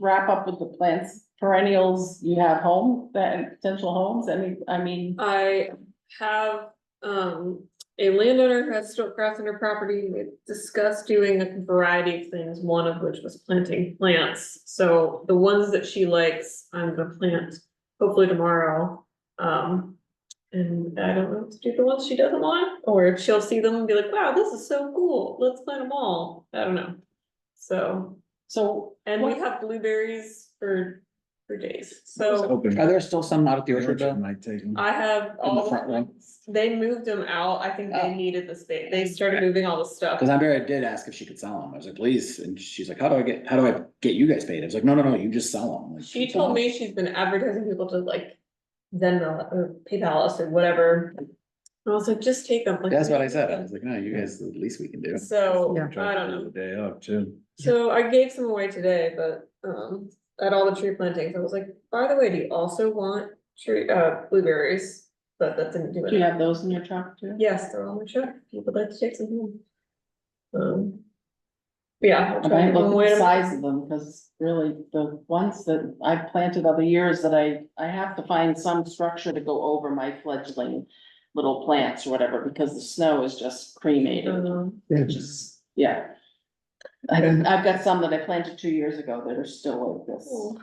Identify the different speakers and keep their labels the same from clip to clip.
Speaker 1: wrap up with the plants, perennials you have home, that potential homes, I mean, I mean,
Speaker 2: I have, um, a landowner who has stiltcraft in her property, we discussed doing a variety of things, one of which was planting plants. So the ones that she likes, I'm gonna plant hopefully tomorrow. Um, and I don't know if to do the ones she doesn't want, or if she'll see them and be like, wow, this is so cool, let's plant them all, I don't know. So,
Speaker 1: so.
Speaker 2: and we
Speaker 1: what-
Speaker 2: have blueberries for, for days, so
Speaker 3: Open.
Speaker 4: Are there still some out at the orchard
Speaker 3: Orchard
Speaker 4: though?
Speaker 3: might take them.
Speaker 2: I have
Speaker 4: In
Speaker 2: all.
Speaker 4: the front one?
Speaker 2: They moved them out, I think they
Speaker 4: Oh.
Speaker 2: needed the space, they started moving all the stuff.
Speaker 4: Cause Andrea did ask if she could sell them. I was like, please. And she's like, how do I get, how do I get you guys paid? I was like, no, no, no, you just sell them.
Speaker 2: She told me she's been advertising people to like, Venmo or PayPal us or whatever. And I was like, just take them. like-
Speaker 4: That's what I said. I was like, no, you guys, the least we can do.
Speaker 2: So,
Speaker 3: Try to
Speaker 2: I don't know,
Speaker 3: do The day up too.
Speaker 2: so I gave some away today, but, um, at all the tree plantings, I was like, by the way, do you also want tree, uh, blueberries? But that didn't do
Speaker 1: Do you
Speaker 2: it,
Speaker 1: have those in your truck too?
Speaker 2: yes, they're on the truck, you would like to take some home. Um. Yeah. I'll
Speaker 1: I
Speaker 2: try Um, to
Speaker 1: might
Speaker 2: give them
Speaker 1: look
Speaker 2: away
Speaker 1: at the
Speaker 2: tomorrow.
Speaker 1: size of them, cause really, the ones that I planted other years that I, I have to find some structure to go over my fledgling. Little plants or whatever, because the snow is just cremated,
Speaker 2: Um,
Speaker 1: which is, yeah. I, I've got some that I planted two years ago that are still like this.
Speaker 2: Cool.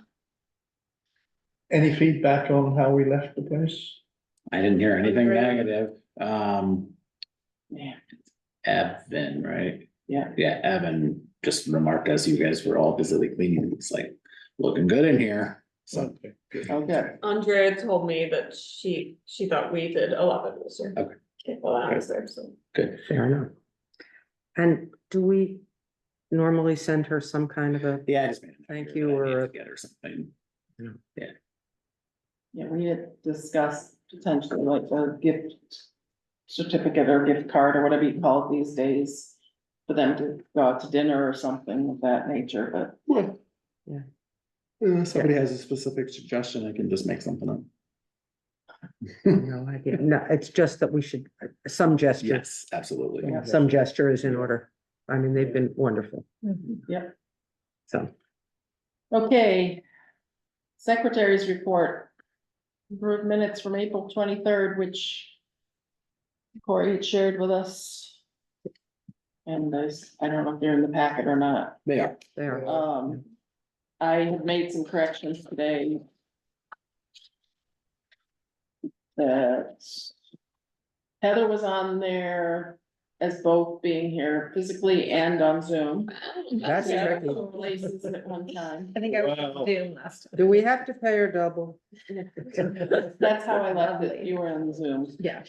Speaker 5: Any feedback on how we left the place?
Speaker 4: I didn't hear anything
Speaker 2: Great.
Speaker 4: negative. Um,
Speaker 1: Yeah,
Speaker 4: Evan, right?
Speaker 1: Yeah.
Speaker 4: Yeah, Evan just remarked as you guys were all busily cleaning. It's like, looking good in here. So,
Speaker 3: Something.
Speaker 1: okay.
Speaker 2: Andrea told me that she, she thought we did a lot better this year.
Speaker 4: Okay.
Speaker 2: Well, I was there, so.
Speaker 4: good.
Speaker 6: Fair enough. And do we normally send her some kind of a,
Speaker 4: Yeah, I just made. a note
Speaker 6: Thank
Speaker 4: here
Speaker 6: you,
Speaker 4: that I need
Speaker 6: or-
Speaker 4: to Get or something.
Speaker 1: Yeah, we had discussed potentially like a gift certificate or gift card or whatever you call it these days. For them to go out to dinner or something of that nature, but
Speaker 4: Uh, Somebody has a specific suggestion, I can just make something up.
Speaker 6: no idea, no, it's just that we should, uh, some gesture,
Speaker 4: Yes, absolutely.
Speaker 1: Yeah.
Speaker 6: some gesture is in order. I mean, they've been wonderful,
Speaker 1: yep,
Speaker 6: so.
Speaker 1: okay. Secretary's report. Approved minutes from April twenty-third, which Corey had shared with us. And I, s- I don't know if they're in the packet or not.
Speaker 4: They are.
Speaker 6: They are.
Speaker 1: Um, I have made some corrections today. That Heather was on there as both being here physically and on Zoom.
Speaker 6: That's
Speaker 1: Yeah,
Speaker 6: tricky.
Speaker 1: two Places at one time.
Speaker 2: I think I was doing last.
Speaker 6: Do we have to pay her double?
Speaker 1: That's how I left it. You were on Zoom.
Speaker 6: Yeah.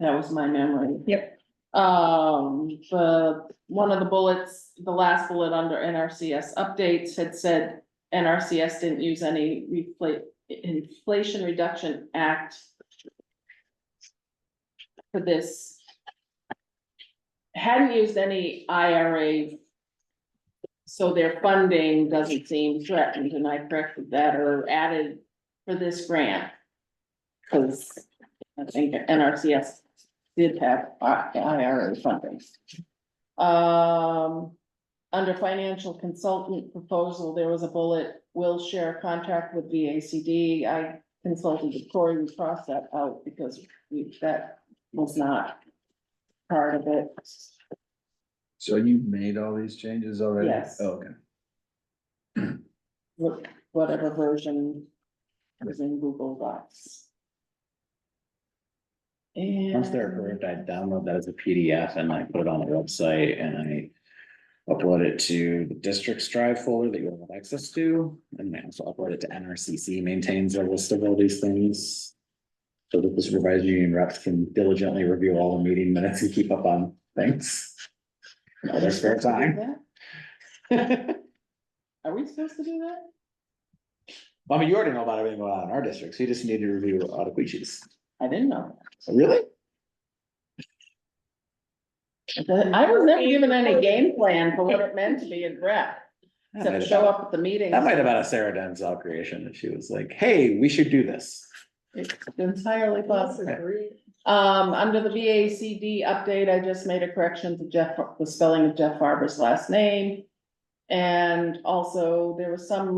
Speaker 1: That was my memory. Yep. Um, the, one of the bullets, the last bullet under NRCS updates had said NRCS didn't use any refla- Inflation Reduction Act for this. Hadn't used any IRA. So their funding doesn't seem threatened, and I corrected that or added for this grant. Cause I think NRCS did have I- IRA funding. Um, under financial consultant proposal, there was a bullet, will share a contract with VACD. I consulted with Corey, we crossed that out because we, that was not part of it.
Speaker 3: So you made all these changes already?
Speaker 1: Yes.
Speaker 3: Oh, Okay.
Speaker 1: wh- Whatever version was in Google Docs. And.
Speaker 4: Once they're approved, I download that as a PDF and I put it on the website and I. Upload it to the district's drive folder that you all have access to, and I also upload it to NRCC maintains a list of all these things. So that the supervisory union reps can diligently review all the meeting minutes and keep up on things. in all their spare time.
Speaker 1: Are we supposed to do that?
Speaker 4: I mean, you already know about everything going on in our district, so you just need to review Otakuichis.
Speaker 1: I didn't know.
Speaker 4: Really?
Speaker 1: I was never given any game plan for what it meant to be in rep,
Speaker 4: That might
Speaker 1: except
Speaker 4: have
Speaker 1: show
Speaker 4: been-
Speaker 1: up at the meeting.
Speaker 4: That might have been a Sarah Denzel creation, if she was like, hey, we should do this.
Speaker 1: It's Entirely possible.
Speaker 2: Agreed.
Speaker 1: Um, under the VACD update, I just made a correction to Jeff, the spelling of Jeff Farber's last name. And also, there was some